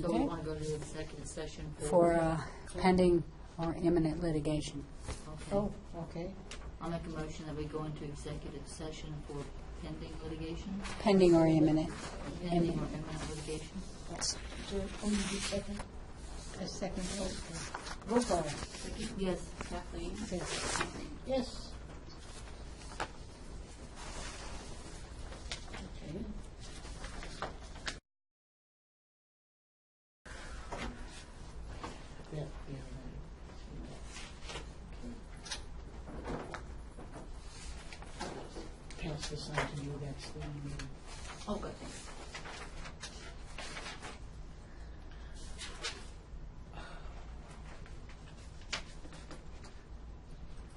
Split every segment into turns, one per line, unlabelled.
So we
Okay.
want to go to the executive session
for
for...
uh, pending or imminent litigation. oh,
Okay.
okay.
I'll make a motion that we go into executive session for pending litigation,
Pending or imminent.
pending or imminent litigation.
Do- Oh, you do second? A second, okay. Roll call.
Yes, Kathleen?
Yes. Yes. Okay. Yeah, yeah. Pass this on to you, that's the, um,
Oh, good, thanks.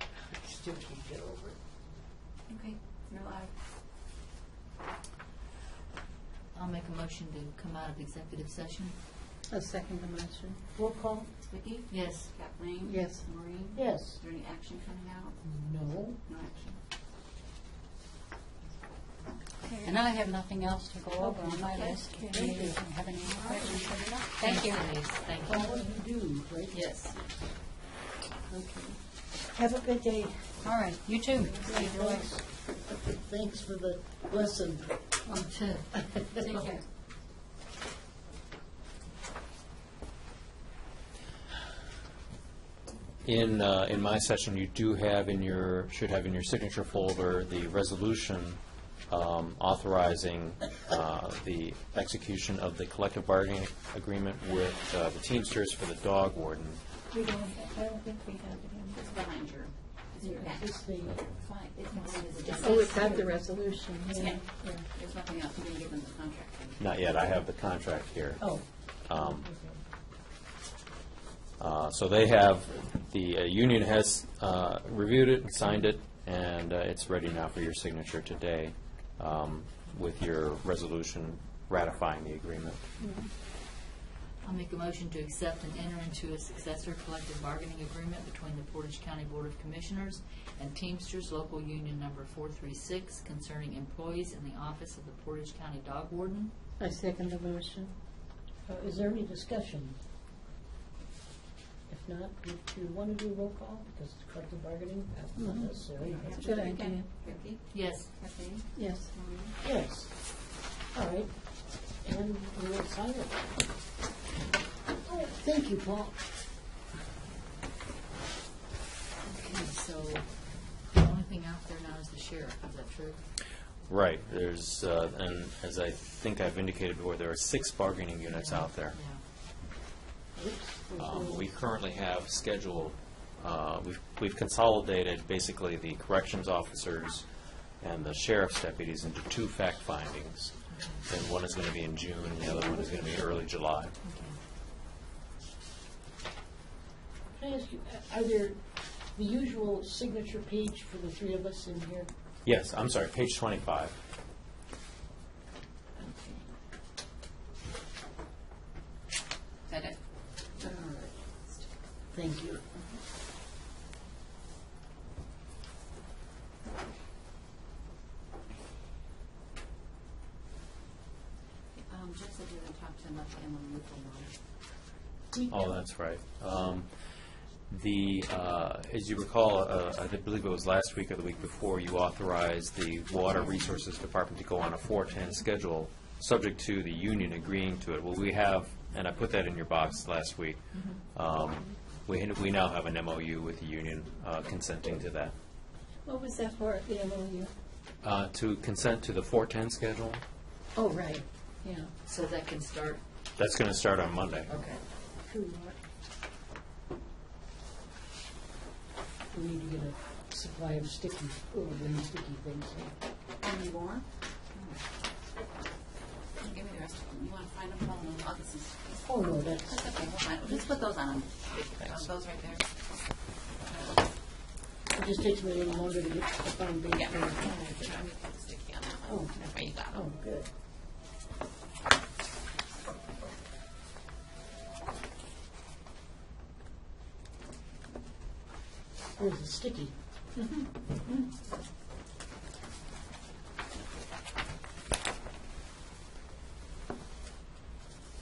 I still can't get over it.
Okay, you're live. I'll make a motion to come out of executive session.
A second dimension. Roll call?
Vicki?
Yes.
Kathleen?
Yes.
Maureen?
Yes.
Is there any action coming out?
No.
No action.
And I have nothing else to go over on my list. Do you have any other questions? Thank you.
Thanks, Denise.
Well,
Thank you.
what do you do, right?
Yes.
Have a good day.
All right, you too.
Thanks. Thanks for the lesson.
You
Oh,
too.
Take care.
In, uh, in my session, you do have in your, should have in your signature folder, the resolution um, authorizing uh, the execution of the collective bargaining agreement with uh, the Teamsters for the dog warden.
We don't, I don't think we have
It's behind your, it's in your packet.
Just the,
It's fine. It's behind his agenda.
oh, it's at the resolution, yeah.
Yeah, there's nothing else. You didn't give them the contract. did you?
Not yet, I have the contract here.
Oh.
Um, Uh, So they have, the uh, union has uh, reviewed it and signed it, and uh, it's ready now for your signature today um, with your resolution ratifying the agreement.
I'll make a motion to accept and enter into a successor collective bargaining agreement between the Portage County Board of Commissioners and Teamsters Local Union Number 436 concerning employees in the office of the Portage County Dog Warden.
I second the motion. uh, Is there any discussion? If not, do do you want to do roll call? Because it's collective bargaining, that's not necessary.
Yeah.
Good
Okay.
idea.
Vicki?
Yes.
Kathleen?
Yes.
Maureen?
Yes. All right. And we will sign it. Thank you, Paul.
Okay, so the only thing out there now is the sheriff, is that true?
Right, there's, uh, and as I think I've indicated before, there are six bargaining units out there.
Yeah.
Um, We currently have scheduled, uh, we've- we've consolidated basically the corrections officers and the sheriff's deputies into two fact findings. And one is going to be in June, and the other one is going to be early July.
Can I ask you, are there the usual signature page for the three of us in here?
Yes, I'm sorry, page 25.
Is that it?
Thank you.
Um, Jeff said you were going to talk to him about the Emily Newton one.
Oh, that's right. Um, The, uh, as you recall, uh, I believe it was last week or the week before, you authorized the Water Resources Department to go on a 410 schedule, subject to the union agreeing to it. Well, we have, and I put that in your box last week, um, we we now have an MOU with the union uh, consenting to that.
What was that for, the MOU?
Uh, To consent to the 410 schedule,
Oh, right, yeah.
So that can start,
that's going to start on Monday.
okay.
Who, uh, We need to get a supply of sticky, oh, the sticky things.
Any more? Oh. Give me the rest of them. You want to find them all in August? That's
Oh, no, that's,
okay, we'll find them. Let's put those on. Those right there.
it just takes me a little longer to get the foundation.
Yeah. I'm going to put the sticky on that one.
Oh.
That's what you got.
Oh, good. Where's the sticky?